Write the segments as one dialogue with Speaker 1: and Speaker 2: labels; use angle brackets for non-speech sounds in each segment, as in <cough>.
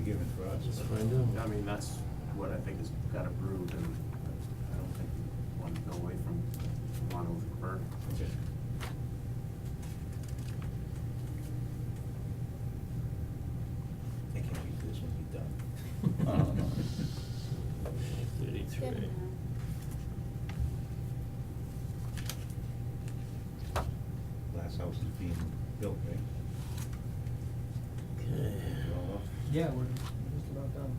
Speaker 1: Let's
Speaker 2: find out.
Speaker 1: I mean, that's what I think has got approved, and I don't think we want to go away from monolithic burn.
Speaker 3: I can't wait for this one to be done. <laughs> Um,
Speaker 2: Thirty-three.
Speaker 3: Last house is being built, right?
Speaker 2: Okay.
Speaker 3: They're all up.
Speaker 4: Yeah, we're just about done.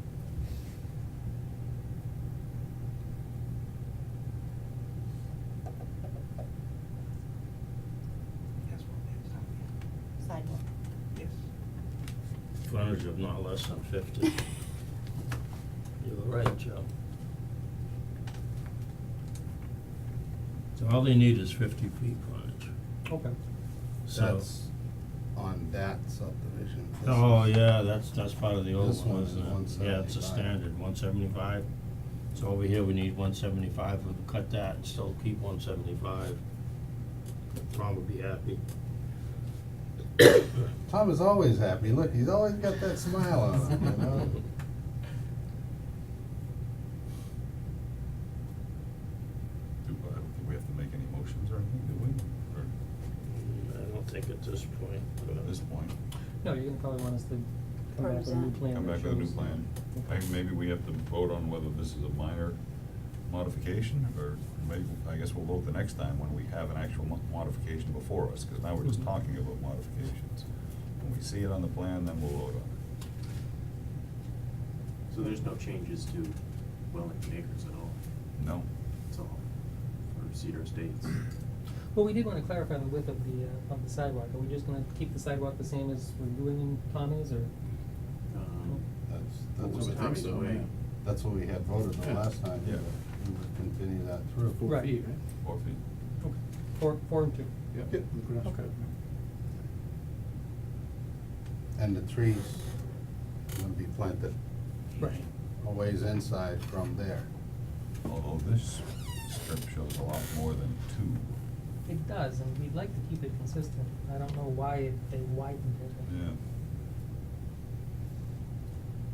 Speaker 3: Yes, well, yes,
Speaker 5: Sidewalk.
Speaker 3: yes.
Speaker 2: Frontage of not less than <laughs> fifty. You were right, Joe. So all they need is fifty feet frontage,
Speaker 4: Okay.
Speaker 2: so.
Speaker 6: That's on that subdivision. This
Speaker 2: Oh,
Speaker 6: is-
Speaker 2: yeah, that's, that's part of the old
Speaker 6: This
Speaker 2: one,
Speaker 6: one is
Speaker 2: isn't it? Yeah, it's a
Speaker 6: 175.
Speaker 2: standard, one seventy-five. So over here, we need one seventy-five, we can cut that and still keep one seventy-five. Tom would be happy.
Speaker 6: Tom is always happy. Look, he's always got that smile on him, you know?
Speaker 7: Do, I don't think we have to make any motions or anything, do we? Or
Speaker 2: I don't think at this point,
Speaker 7: at this
Speaker 2: but
Speaker 7: point,
Speaker 4: No, you're gonna probably want us to come back with a new
Speaker 5: Represent.
Speaker 4: plan
Speaker 7: come
Speaker 4: that
Speaker 7: back with a new
Speaker 4: shows-
Speaker 7: plan. I
Speaker 4: Okay.
Speaker 7: think maybe we have to vote on whether this is a minor modification, or maybe, I guess we'll vote the next time when we have an actual mo- modification before us, because now we're just
Speaker 4: Mhm.
Speaker 7: talking about modifications. When we see it on the plan, then we'll vote on
Speaker 1: So there's no changes to Wellington Acres at all,
Speaker 7: it. No?
Speaker 1: it's all for Cedar Estates.
Speaker 4: Well, we did wanna clarify the width of the, uh, of the sidewalk. Are we just gonna keep the sidewalk the same as we're doing in Tommy's or?
Speaker 1: Um,
Speaker 6: That's,
Speaker 1: What was
Speaker 6: that's what I think
Speaker 1: Tommy's
Speaker 6: so,
Speaker 1: way?
Speaker 6: yeah. That's what we had voted
Speaker 7: Yeah.
Speaker 6: the last time.
Speaker 7: Yeah.
Speaker 6: but We would continue that through.
Speaker 4: Four Right. feet,
Speaker 7: Four feet?
Speaker 4: Okay. Four, four and two.
Speaker 6: Yeah.
Speaker 4: Okay.
Speaker 6: And the trees will be planted
Speaker 4: Right.
Speaker 6: a ways inside from there.
Speaker 7: Although this strip shows a lot more than two.
Speaker 4: It does, and we'd like to keep it consistent. I don't know why it- they widened it.
Speaker 7: Yeah.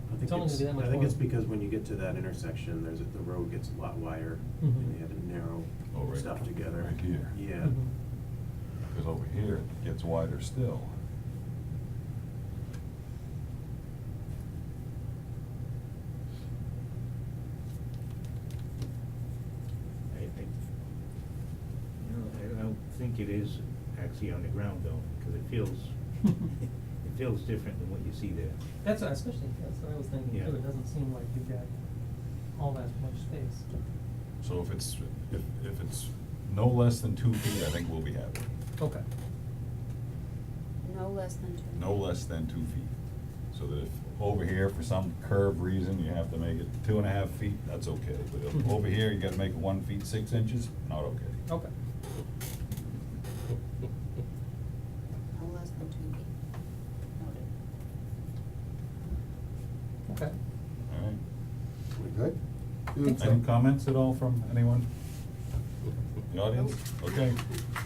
Speaker 1: I think
Speaker 4: It's only gonna be that much
Speaker 1: I think it's
Speaker 4: more.
Speaker 1: because when you get to that intersection, there's, a- the road gets a lot wider,
Speaker 4: Mhm.
Speaker 1: and they had to narrow
Speaker 7: Oh, right-
Speaker 1: stuff together.
Speaker 7: right here.
Speaker 1: Yeah.
Speaker 4: Mhm.
Speaker 7: Because over here, it gets wider still.
Speaker 3: I, I, you know, I don't think it is actually on the ground though, because it <laughs> feels, it feels different than what you see there.
Speaker 4: That's what, especially, that's what I was thinking
Speaker 3: Yeah.
Speaker 4: too. It doesn't seem like you've got all that much space.
Speaker 7: So if it's, if, if it's no less than two feet, I think we'll be happy.
Speaker 4: Okay.
Speaker 5: No less than two.
Speaker 7: No less than two feet. So that if over here, for some curve reason, you have to make it two and a half feet, that's okay. But if
Speaker 4: Mhm.
Speaker 7: over here, you gotta make it one feet, six inches, not okay.
Speaker 4: Okay.
Speaker 5: No less than two feet. Noted.
Speaker 4: Okay.
Speaker 7: All right.
Speaker 6: We good?
Speaker 4: Think so.
Speaker 7: Any comments at all from anyone? The audience? Okay,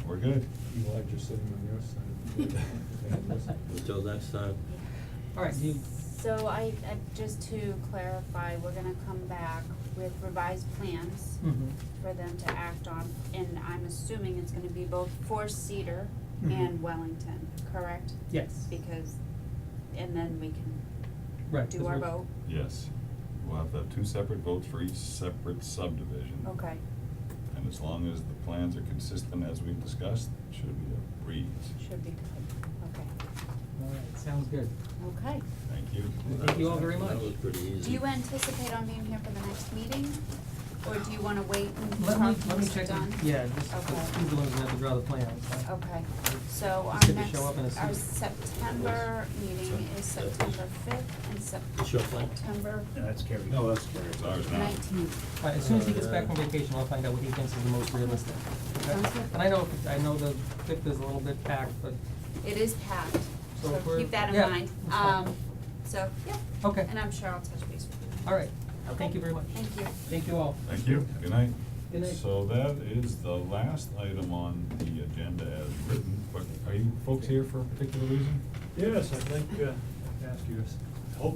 Speaker 7: we're good.
Speaker 8: Eli just sitting on your side.
Speaker 7: <laughs>
Speaker 8: of the table.
Speaker 2: until next time.
Speaker 4: All right, do you,
Speaker 5: So I, I, just to clarify, we're gonna come back with revised plans
Speaker 4: mhm.
Speaker 5: for them to act on, and I'm assuming it's gonna be both for Cedar
Speaker 4: Mhm.
Speaker 7: Mm-hmm.
Speaker 5: and Wellington, correct?
Speaker 4: Yes.
Speaker 5: Because, and then we can
Speaker 4: Right. 'cause
Speaker 5: do our
Speaker 4: we're-
Speaker 5: vote,
Speaker 7: Yes. We'll have to have two separate votes for each separate subdivision.
Speaker 5: okay,
Speaker 7: And as long as the plans are consistent as we've discussed, it should be a breeze.
Speaker 5: should be good,
Speaker 4: All right, sounds good.
Speaker 5: okay, okay.
Speaker 7: Thank you.
Speaker 4: Thank you all very much.
Speaker 2: That was pretty easy.
Speaker 5: Do you anticipate on being here for the next meeting, or do you wanna wait and
Speaker 4: Let
Speaker 5: talk
Speaker 4: me,
Speaker 5: to
Speaker 4: let me check,
Speaker 5: Mr. Dunn?
Speaker 4: the- yeah, just,
Speaker 5: Okay.
Speaker 4: he's the one who had to draw the plans, so.
Speaker 5: Okay, so
Speaker 4: It's
Speaker 5: our
Speaker 4: good to
Speaker 5: next,
Speaker 4: show up in a suit.
Speaker 5: our September meeting is September fifth and Sep-
Speaker 2: Sure, fine.
Speaker 5: September
Speaker 3: No, that's carried.
Speaker 1: No, that's scary.
Speaker 7: It's ours now.
Speaker 5: nineteenth.
Speaker 4: All right, as soon as he gets back from vacation, I'll find out what he thinks is the most realistic. okay?
Speaker 5: Sounds good.
Speaker 4: And I know, I know the fifth is a little bit packed, but,
Speaker 5: It is packed,
Speaker 4: So if
Speaker 5: so
Speaker 4: we're-
Speaker 5: keep that in
Speaker 4: yeah,
Speaker 5: mind.
Speaker 4: that's fine.
Speaker 5: Um, so, yeah,
Speaker 4: okay,
Speaker 5: and I'm sure I'll touch base with you.
Speaker 4: all right.
Speaker 5: Okay.
Speaker 4: Thank you very much.
Speaker 5: Thank you.
Speaker 4: Thank you all.
Speaker 7: Thank you, good night.
Speaker 4: Good night.
Speaker 7: So that is the last item on the agenda as written, but are you folks here for a particular reason?
Speaker 8: Yes, I'd like to ask you s-